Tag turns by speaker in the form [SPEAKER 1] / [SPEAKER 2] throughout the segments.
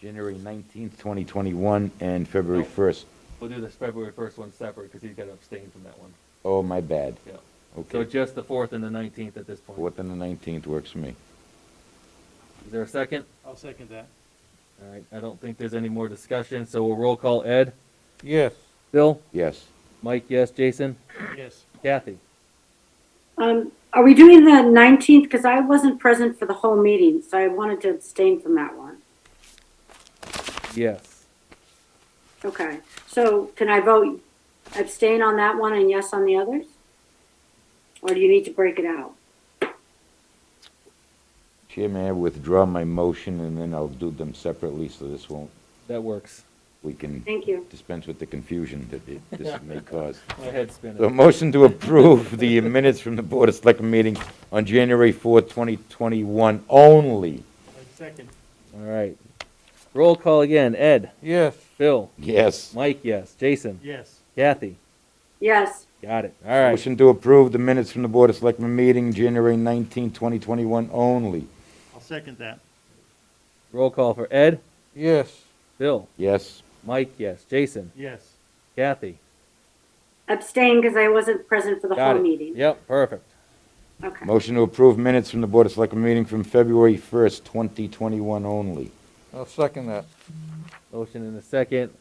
[SPEAKER 1] January nineteenth, twenty twenty-one, and February
[SPEAKER 2] No.
[SPEAKER 1] first.
[SPEAKER 2] We'll do the February first one separate, because he's got to abstain from that one,
[SPEAKER 1] Oh, my bad.
[SPEAKER 2] yeah. So
[SPEAKER 1] Okay.
[SPEAKER 2] just the fourth and the nineteenth at this point.
[SPEAKER 1] Fourth and the nineteenth works for me.
[SPEAKER 2] Is there a second?
[SPEAKER 3] I'll second that.
[SPEAKER 2] All right, I don't think there's any more discussion, so we'll roll call Ed.
[SPEAKER 4] Yes.
[SPEAKER 2] Bill?
[SPEAKER 1] Yes.
[SPEAKER 2] Mike, yes. Jason?
[SPEAKER 3] Yes,
[SPEAKER 2] Kathy?
[SPEAKER 5] Um, are we doing the nineteenth? Because I wasn't present for the whole meeting, so I wanted to abstain from that one.
[SPEAKER 2] Yes.
[SPEAKER 5] Okay, so can I vote abstain on that one and yes on the others? Or do you need to break it out?
[SPEAKER 1] Chair, may I withdraw my motion and then I'll do them separately so this won't,
[SPEAKER 2] That works.
[SPEAKER 1] we can
[SPEAKER 5] Thank you.
[SPEAKER 1] dispense with the confusion that it- this may cause.
[SPEAKER 2] My head's
[SPEAKER 1] So
[SPEAKER 2] spinning.
[SPEAKER 1] motion to approve the minutes from the Board of Selectmen meeting on January fourth, twenty twenty-one only.
[SPEAKER 3] I second.
[SPEAKER 2] All right. Roll call again. Ed?
[SPEAKER 4] Yes.
[SPEAKER 2] Bill?
[SPEAKER 1] Yes.
[SPEAKER 2] Mike, yes. Jason?
[SPEAKER 3] Yes,
[SPEAKER 2] Kathy?
[SPEAKER 5] Yes,
[SPEAKER 2] Got it. All right.
[SPEAKER 1] Motion to approve the minutes from the Board of Selectmen meeting, January nineteenth, twenty twenty-one only.
[SPEAKER 3] I'll second that.
[SPEAKER 2] Roll call for Ed?
[SPEAKER 4] Yes.
[SPEAKER 2] Bill?
[SPEAKER 1] Yes.
[SPEAKER 2] Mike, yes. Jason?
[SPEAKER 3] Yes,
[SPEAKER 2] Kathy?
[SPEAKER 5] abstain because I wasn't present for the
[SPEAKER 2] Got
[SPEAKER 5] whole
[SPEAKER 2] it.
[SPEAKER 5] meeting.
[SPEAKER 2] Yep, perfect.
[SPEAKER 5] Okay,
[SPEAKER 1] Motion to approve minutes from the Board of Selectmen meeting from February first, twenty twenty-one only.
[SPEAKER 4] I'll second that.
[SPEAKER 2] Motion in a second.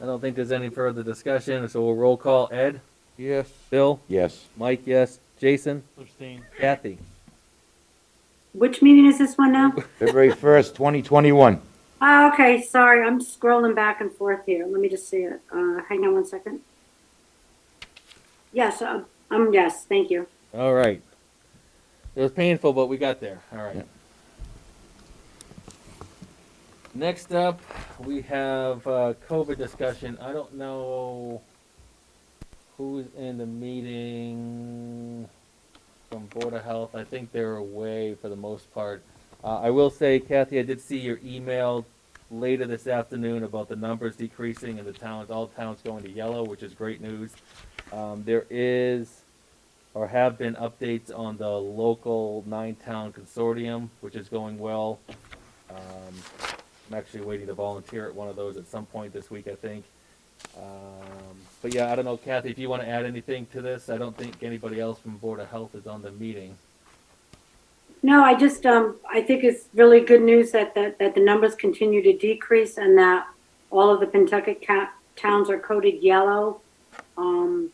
[SPEAKER 2] I don't think there's any further discussion, so we'll roll call Ed?
[SPEAKER 4] Yes.
[SPEAKER 2] Bill?
[SPEAKER 1] Yes.
[SPEAKER 2] Mike, yes. Jason?
[SPEAKER 3] abstain.
[SPEAKER 2] Kathy?
[SPEAKER 5] which meeting is this one now?
[SPEAKER 1] February first, twenty twenty-one.
[SPEAKER 5] Oh, okay, sorry, I'm scrolling back and forth here. Let me just see it. Uh, hang on one second. Yes, uh, um, yes, thank you.
[SPEAKER 2] All right. It was painful, but we got there. All right.
[SPEAKER 1] Yeah.
[SPEAKER 2] Next up, we have uh, COVID discussion. I don't know who's in the meeting from Board of Health. I think they're away for the most part. Uh, I will say, Kathy, I did see your email later this afternoon about the numbers decreasing and the towns, all towns going to yellow, which is great news. Um, there is or have been updates on the local nine-town consortium, which is going well. Um, I'm actually waiting to volunteer at one of those at some point this week, I think. Um, but yeah, I don't know, Kathy, if you want to add anything to this, I don't think anybody else from Board of Health is on the meeting.
[SPEAKER 5] No, I just, um, I think it's really good news that, that, that the numbers continue to decrease and that all of the Pentucket ca- towns are coded yellow. Um,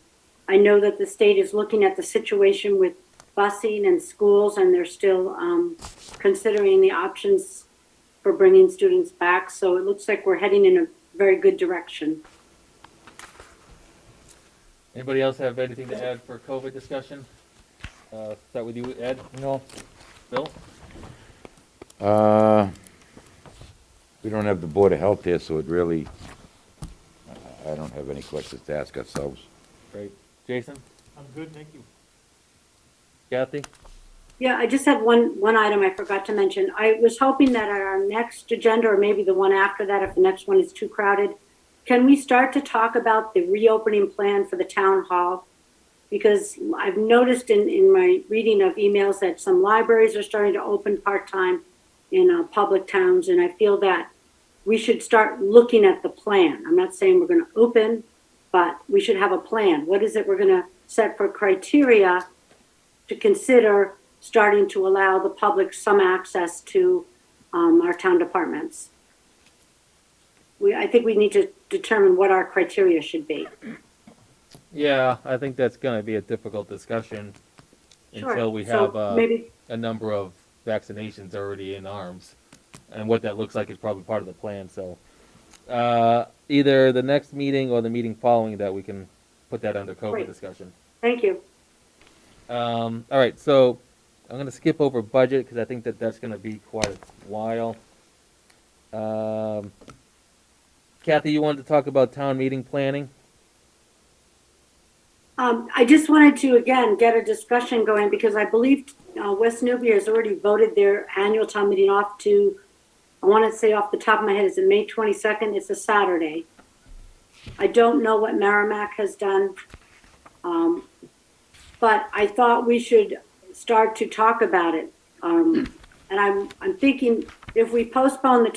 [SPEAKER 5] I know that the state is looking at the situation with busing and schools and they're still, um, considering the options for bringing students back. So it looks like we're heading in a very good direction.
[SPEAKER 2] Anybody else have anything to add for COVID discussion? Uh, start with you, Ed,
[SPEAKER 4] No.
[SPEAKER 2] Bill?
[SPEAKER 1] Uh, we don't have the Board of Health here, so it really, I- I don't have any questions to ask ourselves.
[SPEAKER 2] Great. Jason?
[SPEAKER 3] I'm good, thank you.
[SPEAKER 2] Kathy?
[SPEAKER 5] Yeah, I just had one, one item I forgot to mention. I was hoping that at our next agenda, or maybe the one after that, if the next one is too crowded, can we start to talk about the reopening plan for the town hall? Because I've noticed in, in my reading of emails that some libraries are starting to open part-time in, uh, public towns, and I feel that we should start looking at the plan. I'm not saying we're gonna open, but we should have a plan. What is it we're gonna set for criteria to consider starting to allow the public some access to um, our town departments. We, I think we need to determine what our criteria should be.
[SPEAKER 2] Yeah, I think that's gonna be a difficult discussion
[SPEAKER 5] Sure.
[SPEAKER 2] until we
[SPEAKER 5] So
[SPEAKER 2] have, uh,
[SPEAKER 5] Maybe,
[SPEAKER 2] a number of vaccinations already in arms, and what that looks like is probably part of the plan. So, uh, either the next meeting or the meeting following that, we can put that under COVID
[SPEAKER 5] Great.
[SPEAKER 2] discussion.
[SPEAKER 5] thank you.
[SPEAKER 2] Um, all right, so I'm gonna skip over budget because I think that that's gonna be quite a while. Um, Kathy, you wanted to talk about town meeting planning?
[SPEAKER 5] Um, I just wanted to, again, get a discussion going because I believe uh, West Newbury has already voted their annual town meeting off to, I want to say off the top of my head, is it May 22nd? It's a Saturday. I don't know what Merrimack has done. Um, But I thought we should start to talk about it. Um, And I'm, I'm thinking if we postpone the